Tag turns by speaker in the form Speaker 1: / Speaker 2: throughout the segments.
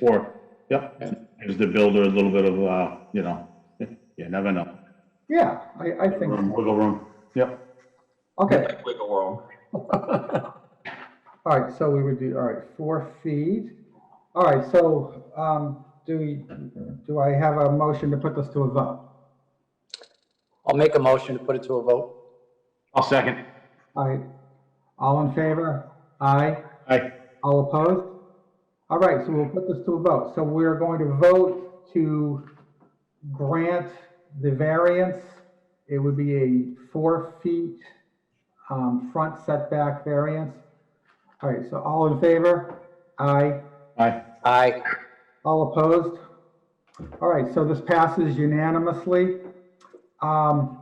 Speaker 1: Or, yep, gives the builder a little bit of, uh, you know, you never know.
Speaker 2: Yeah, I, I think,
Speaker 1: Room, Wiggle room, yep.
Speaker 2: okay,
Speaker 3: Like wiggle world.
Speaker 2: all right, so we would do, all right, four feet. All right, so, um, do we, do I have a motion to put this to a vote?
Speaker 4: I'll make a motion to put it to a vote.
Speaker 1: I'll second.
Speaker 2: All right, all in favor? Aye,
Speaker 1: Aye,
Speaker 2: all opposed? All right, so we'll put this to a vote. So we're going to vote to grant the variance. It would be a four feet, um, front setback variance. All right, so all in favor? Aye.
Speaker 1: aye,
Speaker 4: Aye.
Speaker 2: All opposed? All right, so this passes unanimously. Um,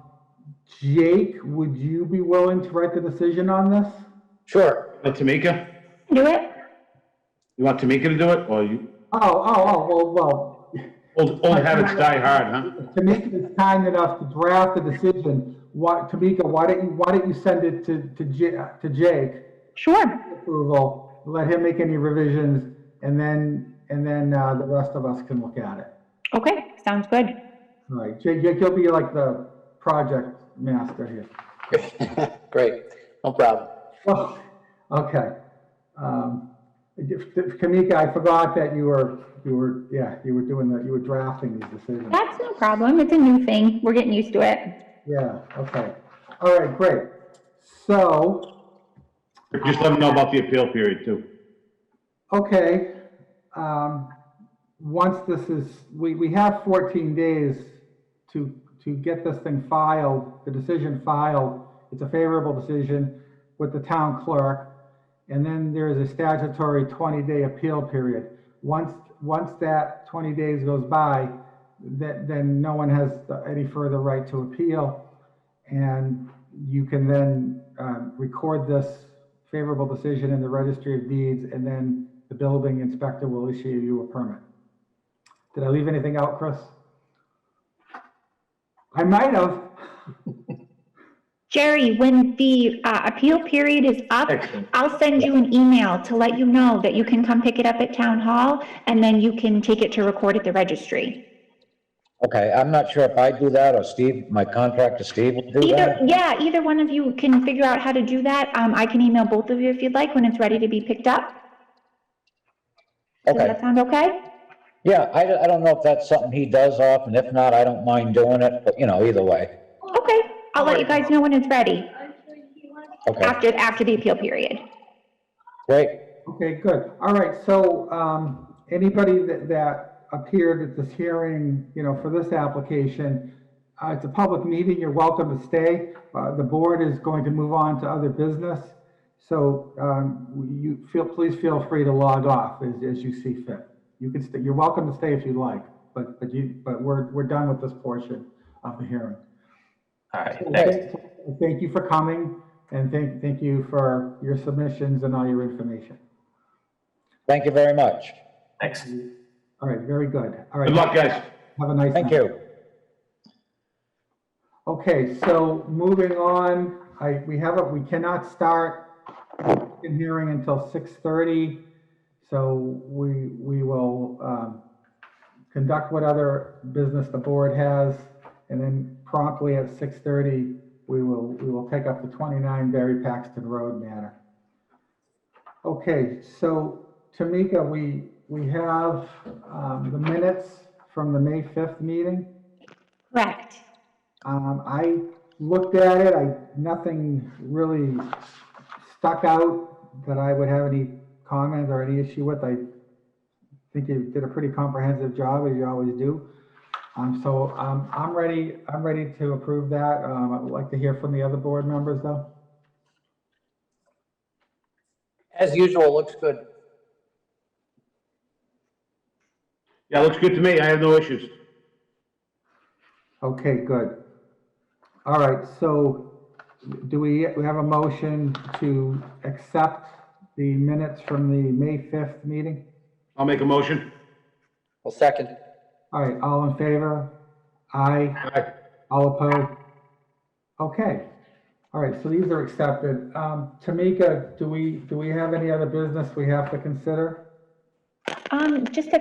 Speaker 2: Jake, would you be willing to write the decision on this?
Speaker 4: Sure.
Speaker 1: Uh, Tamika,
Speaker 5: Do it?
Speaker 1: you want Tamika to do it, or you,
Speaker 2: Oh, oh, oh, well, well,
Speaker 1: old, old habits die hard, huh?
Speaker 2: Tamika is kind enough to draft the decision. What, Tamika, why don't you, why don't you send it to, to Ja- to Jake?
Speaker 5: Sure.
Speaker 2: Approval, let him make any revisions, and then, and then, uh, the rest of us can look at it.
Speaker 5: Okay, sounds good.
Speaker 2: All right, Jake, Jake, you'll be like the project master here.
Speaker 4: Great. No problem.
Speaker 2: Well, okay. Um, if- if- Kamika, I forgot that you were, you were, yeah, you were doing that, you were drafting these decisions.
Speaker 5: That's no problem. It's a new thing. We're getting used to it.
Speaker 2: Yeah, okay. All right, great. So,
Speaker 1: Just let them know about the appeal period, too.
Speaker 2: okay, um, once this is, we, we have 14 days to, to get this thing filed, the decision filed. It's a favorable decision with the town clerk. And then there is a statutory 20-day appeal period. Once, once that 20 days goes by, then, then no one has any further right to appeal. And you can then um, record this favorable decision in the registry of deeds, and then the building inspector will issue you a permit. Did I leave anything out, Chris? I might have.
Speaker 5: Jerry, when the uh, appeal period is up,
Speaker 1: Excellent.
Speaker 5: I'll send you an email to let you know that you can come pick it up at town hall and then you can take it to record at the registry.
Speaker 6: Okay, I'm not sure if I do that or Steve, my contractor Steve will do
Speaker 5: Either,
Speaker 6: that.
Speaker 5: yeah, either one of you can figure out how to do that. Um, I can email both of you if you'd like when it's ready to be picked up. Does
Speaker 6: Okay,
Speaker 5: that sound okay?
Speaker 6: yeah, I, don't- I don't know if that's something he does often. If not, I don't mind doing it, but you know, either way.
Speaker 5: Okay, I'll let you guys know when it's ready
Speaker 6: Okay,
Speaker 5: after, after the appeal period.
Speaker 6: great.
Speaker 2: Okay, good. All right, so um, anybody that, that appeared at this hearing, you know, for this application, uh, it's a public meeting, you're welcome to stay. Uh, The board is going to move on to other business. So um, you feel, please feel free to log off as, as you see fit. You can, stay. you're welcome to stay if you like, but, but you, but we're, we're done with this portion of the hearing.
Speaker 3: All right, thanks.
Speaker 2: Okay, so Thank you for coming and thank, thank you for your submissions and all your information.
Speaker 6: Thank you very much.
Speaker 3: Thanks.
Speaker 2: All right, very good. All right.
Speaker 1: Good luck, guys.
Speaker 2: Have a nice night.
Speaker 6: Thank you.
Speaker 2: Okay, so moving on, I, we have, a- we cannot start the hearing until 6:30. So we, we will um, conduct what other business the board has. And then promptly at 6:30, we will, we will take up the 29 Barry Paxton Road matter. Okay, so Tamika, we, we have um, the minutes from the May 5th meeting.
Speaker 5: Correct.
Speaker 2: Um, I looked at it, I, nothing really stuck out that I would have any comment or any issue with. I think you did a pretty comprehensive job, as you always do. Um, so, um, I'm ready, I'm ready to approve that. Um, I would like to hear from the other board members, though.
Speaker 4: As usual, looks good.
Speaker 1: Yeah, looks good to me, I have no issues.
Speaker 2: Okay, good. All right, so do we, we have a motion to accept the minutes from the May 5th meeting?
Speaker 1: I'll make a motion.
Speaker 4: Well, second.
Speaker 2: All right, all in favor? Aye.
Speaker 1: Aye.
Speaker 2: All opposed? Okay. All right, so these are accepted. Um, Tamika, do we, do we have any other business we have to consider?
Speaker 5: Um, just a